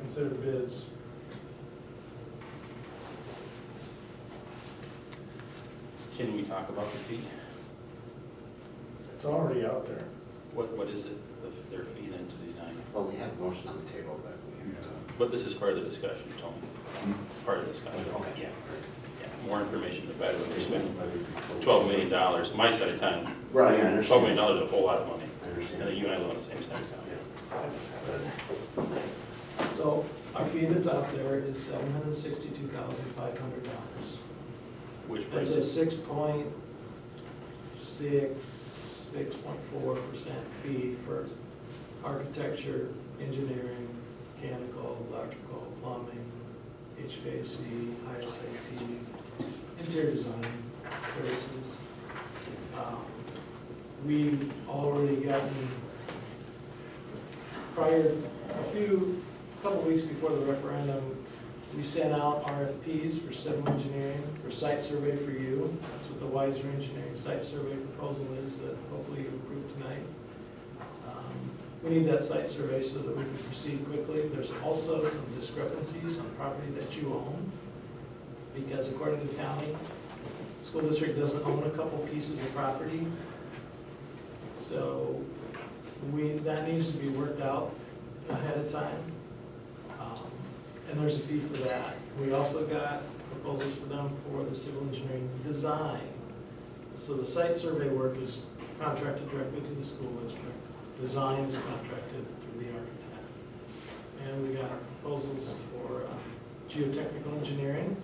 consider bids. Can we talk about the fee? It's already out there. What, what is it, the- their fee then to design? Well, we have a motion on the table that we have to. But this is part of the discussion, Tony, part of the discussion. Okay. Yeah, yeah, more information the better, we're spending Whether it be closed. twelve million dollars, my side of town. Right, I understand. Twelve million dollars is a whole lot of money, I and then understand. you and I live on the same side of town. Yeah. But So our fee that's out there is seven hundred and sixty-two thousand five hundred dollars. Which That's brings a us, six point six, six point four percent fee for architecture, engineering, mechanical, electrical, plumbing, HVAC, ISAT, interior design services. Um, We've already gotten, prior, a few, a couple weeks before the referendum, we sent out RFPs for civil engineering, for site survey for you. That's what the Wiser Engineering Site Survey proposal is that hopefully you approve tonight. Um, We need that site survey so that we can proceed quickly. There's also some discrepancies on property that you own, because according to the county, the school district doesn't own a couple pieces of property. So we, that needs to be worked out ahead of time. Um, And there's a fee for that. We also got proposals for them for the civil engineering design. So the site survey work is contracted directly to the school district. Design is contracted to the architect. And we got proposals for um, geotechnical engineering,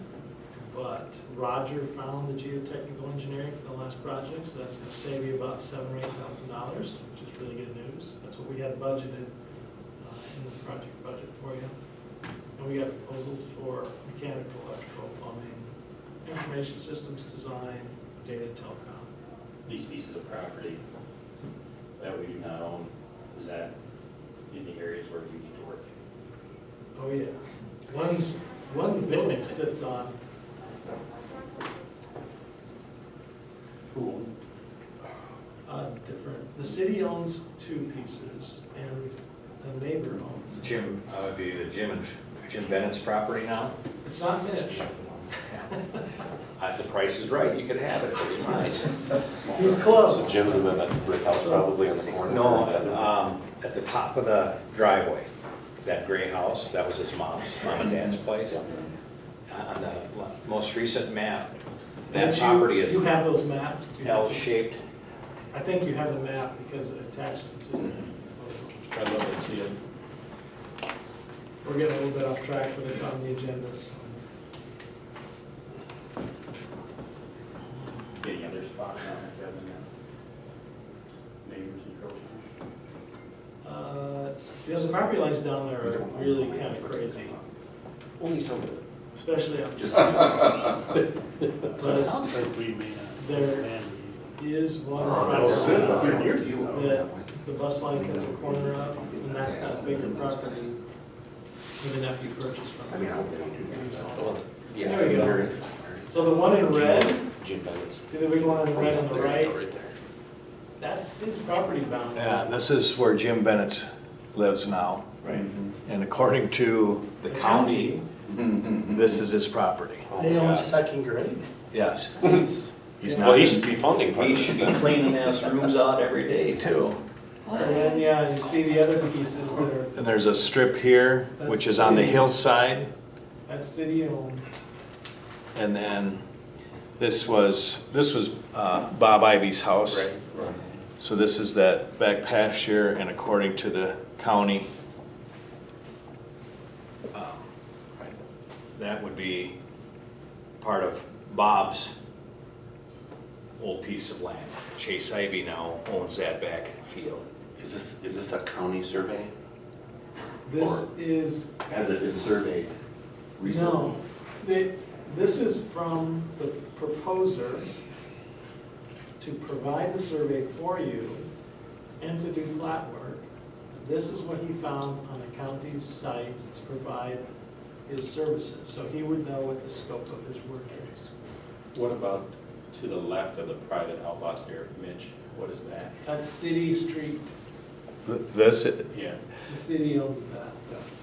but Roger found the geotechnical engineering for the last project, so that's gonna save you about seven or eight thousand dollars, which is really good news. That's what we had budgeted uh, in the project budget for you. And we got proposals for mechanical, electrical, plumbing, information systems design, data telecom. these pieces of property that we do not own, is that in the areas where we need to work? Oh, yeah. One's, one building sits on, Who owns? uh, different, the city owns two pieces and the neighbor owns. Jim, uh, would be the Jim and, Jim Bennett's property now. It's not Mitch. Uh, The price is right, you could have it, if you might. He's close. Jim's in that brick house So- probably on the corner. No, of that. um, at the top of the uh, driveway, that gray house, that was his mom's, mom and dad's place. On the le- most recent map, that Mitch, you- property is You have those maps? Do you- L-shaped. I think you have the map because it attaches to the Mm-hmm. proposal. I'd love to see it. We're getting a little bit off track, but it's on the agenda. Any other spots on that, Kevin, that neighbors encroaching? Uh, Those property lines down there we are don't- really kind of crazy, Only some of it. especially on just. But It it's- sounds like we may not. There- Man, is one Well, Sid, property, you know, years ago, that one. the bus line cuts a corner up, and that's that bigger property that the nephew purchased I from. mean, I hope they don't do that. So- Yeah. There we go. there is. So the one in red, Jim Bennett's. see the big one in red on the There you go, right, there. that's his property boundary. Yeah, this is where Jim Bennett lives now. Right. And according to the county, this is his property. They Oh own second grade. Yes. He's Well, not he in should be funding part He of this should be then. cleaning those rooms out every day, too. two. So then, yeah, you see the other pieces that are, And there's a strip here, which is on the hillside. that's city owned. And then this was, this was uh, Bob Ivy's house. Right. So this is that back pasture and according to the county, um, that would be Part of Bob's old piece of land. Chase Ivy now owns that back field. Is this, is this a county survey? This is Has it been surveyed recently? No, the, this is from the proposer to provide the survey for you and to do flat work. This is what he found on the county's site to provide his services, so he would know what the scope of his work is. What about to the left of the private outlot there, Mitch? What is that? That's city street, th- this, Yeah. the city owns that.